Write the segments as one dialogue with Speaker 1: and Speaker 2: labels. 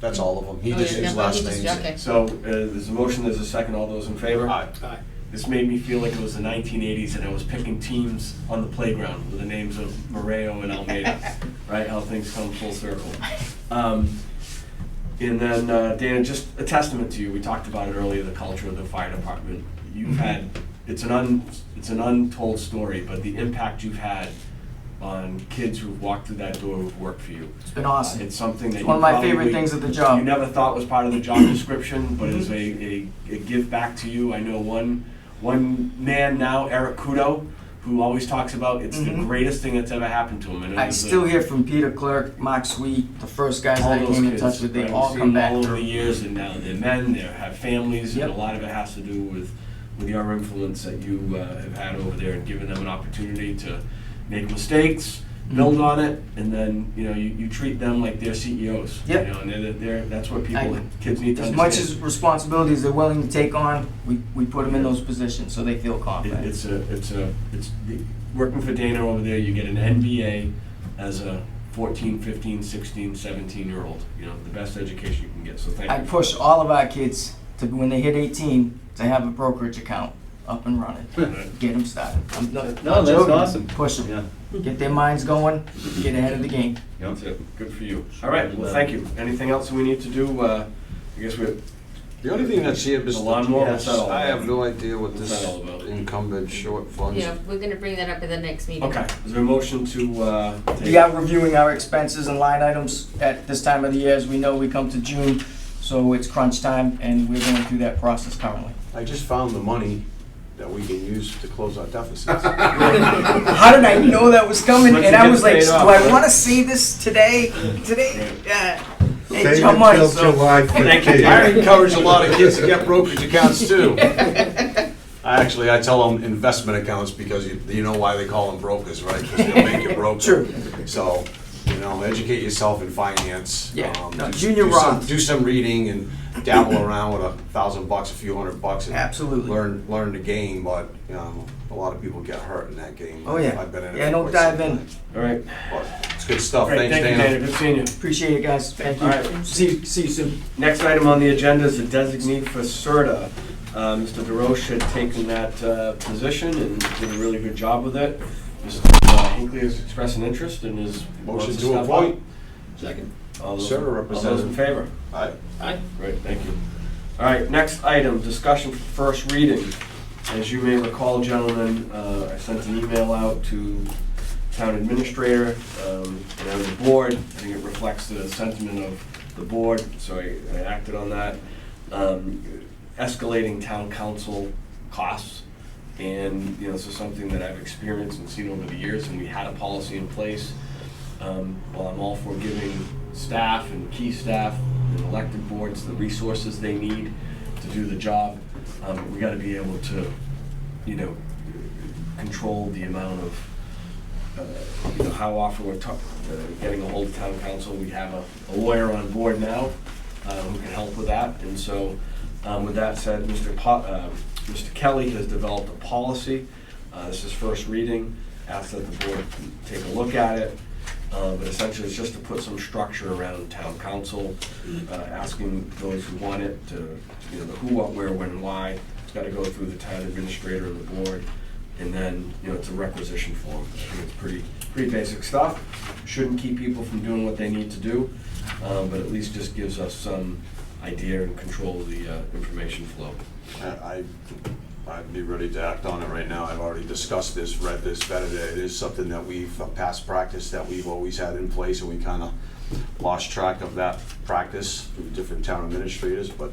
Speaker 1: That's all of them. He
Speaker 2: Oh,
Speaker 1: just
Speaker 2: yeah,
Speaker 1: his
Speaker 2: no,
Speaker 1: last
Speaker 2: he just-
Speaker 1: name.
Speaker 2: okay.
Speaker 3: So, uh, there's a motion, there's a second, all those in favor?
Speaker 1: Aye.
Speaker 4: Aye.
Speaker 3: This made me feel like it was the nineteen eighties and I was picking teams on the playground with the names of Moreo and Almeida, right, how things come full circle. Um, and then, uh, Dana, just a testament to you, we talked about it earlier, the culture of the fire department. You've
Speaker 2: Mm-hmm.
Speaker 3: had, it's an un, it's an untold story, but the impact you've had on kids who've walked through that door who've worked for you. Uh,
Speaker 5: It's been awesome.
Speaker 3: It's something that you
Speaker 5: It's one of my favorite
Speaker 3: probably-
Speaker 5: things at the job.
Speaker 3: You never thought was part of the job description, but is a, a, a give back to you. I know one, one man now, Eric Kudo, who always talks about it's the
Speaker 5: Mhm.
Speaker 3: greatest thing that's ever happened to him. And it
Speaker 5: I
Speaker 3: was a-
Speaker 5: still hear from Peter Clerk, Mark Sweet, the first guys
Speaker 3: all
Speaker 5: that I
Speaker 3: those
Speaker 5: came in
Speaker 3: kids,
Speaker 5: touch with, they
Speaker 3: right?
Speaker 5: all
Speaker 3: We've
Speaker 5: come
Speaker 3: seen
Speaker 5: back
Speaker 3: All over the
Speaker 5: through.
Speaker 3: years, and now they're men, they have families, and a
Speaker 5: Yep.
Speaker 3: lot of it has to do with, with your influence that you uh, have had over there and given them an opportunity to make mistakes, build on it, and then, you know, you, you treat them like they're CEOs. you
Speaker 5: Yep.
Speaker 3: know, And they're, they're, that's what people,
Speaker 5: I-
Speaker 3: kids need to
Speaker 5: As
Speaker 3: understand.
Speaker 5: much as responsibilities they're willing to take on, we, we put them in those positions so they feel
Speaker 3: It-
Speaker 5: confident.
Speaker 3: It's a, it's a, it's, the- working for Dana over there, you get an NBA as a 14, 15, 16, 17-year-old, you know, the best education you can get, so thank you.
Speaker 5: I push all of our kids to, when they hit 18, to have a brokerage account up and running. Get them started. I'm not-
Speaker 4: No,
Speaker 5: not
Speaker 4: that's
Speaker 5: joking.
Speaker 4: awesome.
Speaker 5: Push
Speaker 4: Yeah.
Speaker 5: them. Get their minds going, get ahead of the game.
Speaker 3: That's it. Good for you. All right, well, thank you. Anything else we need to do? Uh, I guess we're,
Speaker 1: The only thing that's here is
Speaker 3: The
Speaker 1: the
Speaker 3: lawnmower, what's that all
Speaker 1: I have
Speaker 3: about?
Speaker 1: no idea what
Speaker 3: What's
Speaker 1: this
Speaker 3: that all about?
Speaker 1: incumbent short funds.
Speaker 2: Yeah, we're gonna bring that up at the next meeting.
Speaker 3: okay, is there a motion to, uh? take-
Speaker 5: We are reviewing our expenses and line items at this time of the year. As we know, we come to June, so it's crunch time, and we're going through that process currently.
Speaker 1: I just found the money that we can use to close our deficits.
Speaker 5: How did I know that was coming?
Speaker 3: Once
Speaker 5: And
Speaker 3: it
Speaker 5: I was like,
Speaker 3: gets
Speaker 5: do
Speaker 3: paid
Speaker 5: I
Speaker 3: off,
Speaker 5: want to say this today? Today? Yeah.
Speaker 6: Save
Speaker 5: Hey, Joe
Speaker 6: it
Speaker 5: Mike,
Speaker 6: till
Speaker 5: so-
Speaker 6: July
Speaker 3: Thank you.
Speaker 6: 15th.
Speaker 1: I encourage a lot of kids to get brokerage accounts too. I Actually, I tell them investment accounts because you, you know why they call them brokers, right? Because they'll make you broke.
Speaker 5: True.
Speaker 1: So, you know, educate yourself in finance.
Speaker 5: Yeah,
Speaker 1: Um,
Speaker 5: no,
Speaker 1: do-
Speaker 5: junior
Speaker 1: do some-
Speaker 5: Roth.
Speaker 1: Do some reading and dabble around with a thousand bucks, a few hundred bucks. and
Speaker 5: Absolutely.
Speaker 1: Learn, learn the game, but, you know, a lot of people get hurt in that game.
Speaker 5: Oh, yeah.
Speaker 1: I've been in it.
Speaker 5: Yeah,
Speaker 1: for
Speaker 5: don't
Speaker 1: quite some
Speaker 5: dive in.
Speaker 1: time.
Speaker 3: All right.
Speaker 1: But It's good stuff.
Speaker 3: Great,
Speaker 1: Thanks,
Speaker 3: thank you, Dana. Good seeing you.
Speaker 5: Appreciate it, guys. Thank
Speaker 3: All right.
Speaker 5: you. See, see you soon.
Speaker 3: Next item on the agenda is a designee for CERTA. Uh, Mr. DeRoche had taken that uh, position and did a really good job with it. Mr. Hinckley has expressed an interest and is. wants
Speaker 1: Motion to
Speaker 3: step up.
Speaker 1: appoint.
Speaker 4: Second.
Speaker 3: All those-
Speaker 1: CERTA
Speaker 3: All those in
Speaker 1: representative.
Speaker 3: favor?
Speaker 1: Aye.
Speaker 4: Aye.
Speaker 3: Great, thank you. All right, next item, discussion for first reading. As you may recall, gentlemen, uh, I sent an email out to town administrator um, and the board. I think it reflects the sentiment of the board, so I I acted on that. Um, Escalating town council costs. And, you know, this is something that I've experienced and seen over the years, and we had a policy in place. Um, While I'm all for giving staff and key staff and elected boards the resources they need to do the job, um, we gotta be able to, you know, control the amount of, uh, you know, how often we're talk- uh, getting a hold of town council. We have a a lawyer on board now uh, who can help with that. And so, um, with that said, Mr. Po- uh, Mr. Kelly has developed a policy. Uh, This is first reading. Ask that the board take a look at it. Uh, But essentially, it's just to put some structure around town council, uh, asking those who want it to, you know, the who, what, where, when, why. It's got to go through the town administrator and the board. And then, you know, it's a requisition form. I think it's pretty, pretty basic stuff. Shouldn't keep people from doing what they need to do, um, but at least just gives us some idea and control of the uh, information flow.
Speaker 1: I, I- I'd be ready to act on it right now. I've already discussed this, read this, vetted it. It is something that we've, a past practice that we've always had in place, and we kind of lost track of that practice through different town administrators, but,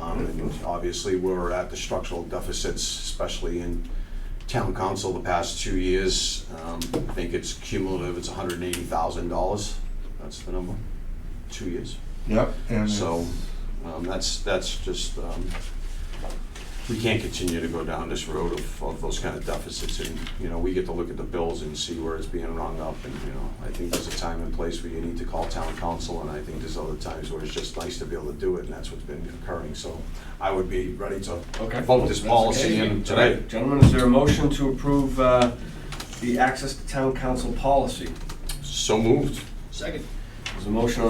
Speaker 1: um, and obviously, we're at the structural deficits, especially in town council the past two years. Um, I think it's cumulative, it's hundred and eighty thousand dollars. That's the number, two years.
Speaker 6: Yep, and
Speaker 1: So,
Speaker 6: it's-
Speaker 1: um, that's, that's just, um, we can't continue to go down this road of, of those kind of deficits, and, you know, we get to look at the bills and see where it's being rung up, and, you know, I think there's a time and place where you need to call town council, and I think there's other times where it's just nice to be able to do it, and that's what's been occurring, so I would be ready to
Speaker 3: Okay.
Speaker 1: vote this
Speaker 3: That's
Speaker 1: policy in
Speaker 3: okay. All right.
Speaker 1: today.
Speaker 3: Gentlemen, is there a motion to approve uh, the access to town council policy?
Speaker 1: So moved.
Speaker 4: Second.
Speaker 3: There's a motion on